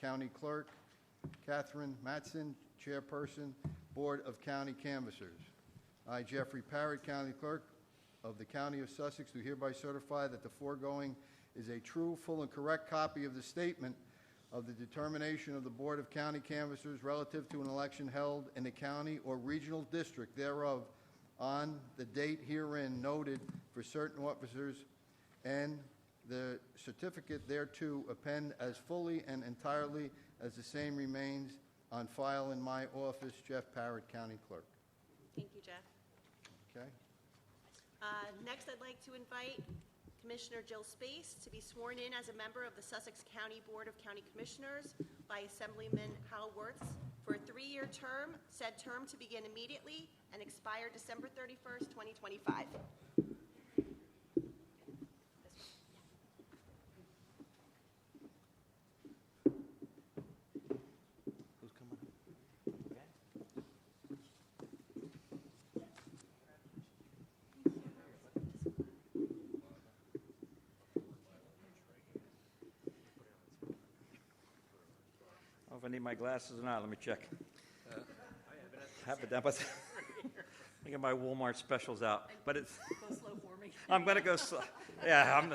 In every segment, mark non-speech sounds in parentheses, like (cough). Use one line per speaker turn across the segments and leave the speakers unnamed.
County Clerk, Catherine Matson, Chairperson, Board of County Canvassers. I, Jeffrey Parrott, County Clerk of the County of Sussex, do hereby certify that the foregoing is a true, full, and correct copy of the statement of the determination of the Board of County Canvassers relative to an election held in the county or regional district thereof on the date herein noted for certain officers and the certificate thereto append as fully and entirely as the same remains on file in my office, Jeff Parrott, County Clerk.
Thank you, Jeff.
Okay?
Uh, Next, I'd like to invite Commissioner Jill Space to be sworn in as a member of the Sussex County Board of County Commissioners by Assemblyman Hal Wirtz for a three-year term, said term to begin immediately and expire December 31st, 2025.
Who's coming up? Okay. I don't know if I need my glasses or not, let me check. Have it down, but (laughs) I get my Walmart specials out, but it's. Go slow for me. I'm gonna go slow, yeah, I'm,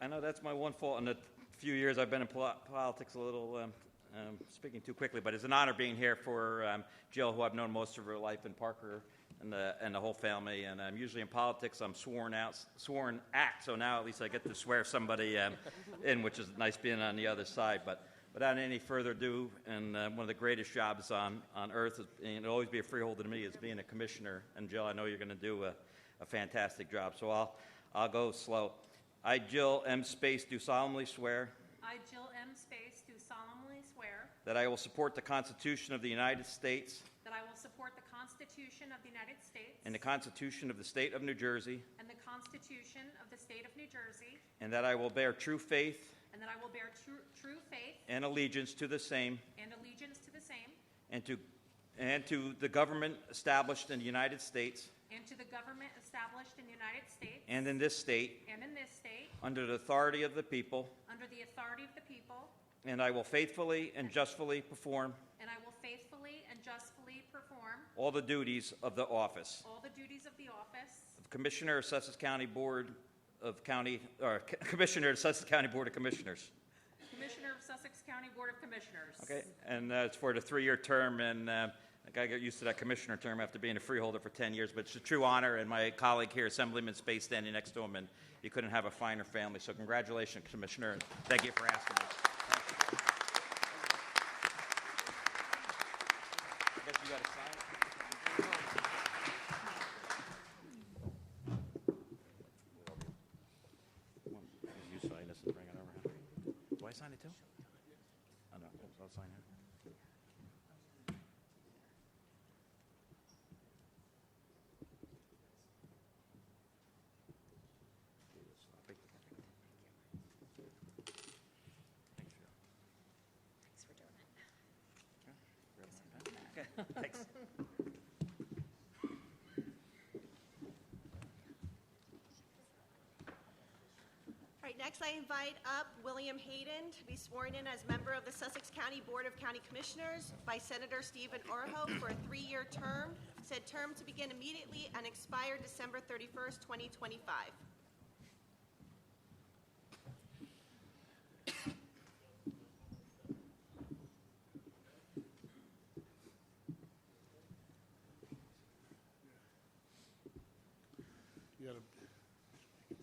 I know that's my one fault in the few years I've been in pol- politics, a little um, um, speaking too quickly, but it's an honor being here for um, Jill, who I've known most of her life, and Parker and the, and the whole family. And um, usually in politics, I'm sworn out, sworn at, so now at least I get to swear somebody um, in, which is nice being on the other side. But without any further ado, and uh, one of the greatest jobs on, on earth, is, and it'll always be a freeholder to me, is being a commissioner. And Jill, I know you're going to do a, a fantastic job, so I'll, I'll go slow. I, Jill M. Space, do solemnly swear
I, Jill M. Space, do solemnly swear
that I will support the Constitution of the United States
that I will support the Constitution of the United States
and the Constitution of the State of New Jersey,
and the Constitution of the State of New Jersey,
and that I will bear true faith
and that I will bear true true faith
and allegiance to the same
and allegiance to the same
and to, and to the government established in the United States
and to the government established in the United States
and in this state
and in this state,
under the authority of the people,
under the authority of the people,
and I will faithfully and justly perform
and I will faithfully and justly perform
all the duties of the office
all the duties of the office
of Commissioner of Sussex County Board of County, or Commissioner of Sussex County Board of Commissioners.
Commissioner of Sussex County Board of Commissioners.
Okay, and uh, it's for the three-year term, and uh, I gotta get used to that commissioner term after being a freeholder for 10 years, but it's a true honor, and my colleague here, Assemblyman Space, standing next to him, and you couldn't have a finer family, so congratulations, Commissioner, and thank you for asking us. I guess you gotta sign it. One, You sign this and bring it over. Do I sign it too? I know, I'll sign it.
Thanks for doing it.
Thanks.
All right, next I invite up William Hayden to be sworn in as member of the Sussex County Board of County Commissioners by Senator Stephen Orho for a three-year term, said term to begin immediately and expire December 31st, 2025.
You gotta,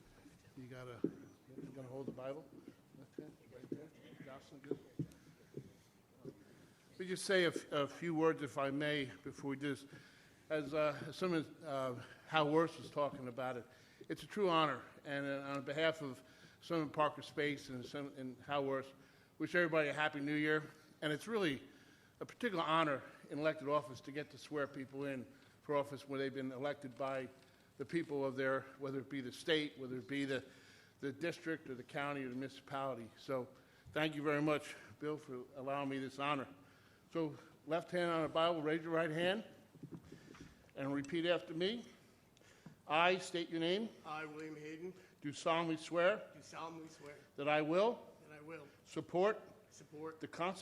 you gotta, you gonna hold the Bible? That's it, right there. Jocelyn, good. Let me just say a, f- a few words, if I may, before we do this. As, uh, as some of, uh, Hal Worth was talking about it, it's a true honor, and uh, on behalf of some in Parker Space and some in Hal Worth, wish everybody a happy new year. And it's really a particular honor in elected office to get to swear people in for office where they've been elected by the people of their, whether it be the state, whether it be the, the district or the county or the municipality. So thank you very much, Bill, for allowing me this honor. So left hand on the Bible, raise your right hand and repeat after me. I state your name,
I, William Hayden,
do solemnly swear
do solemnly swear
that I will
that I will
support the Constitution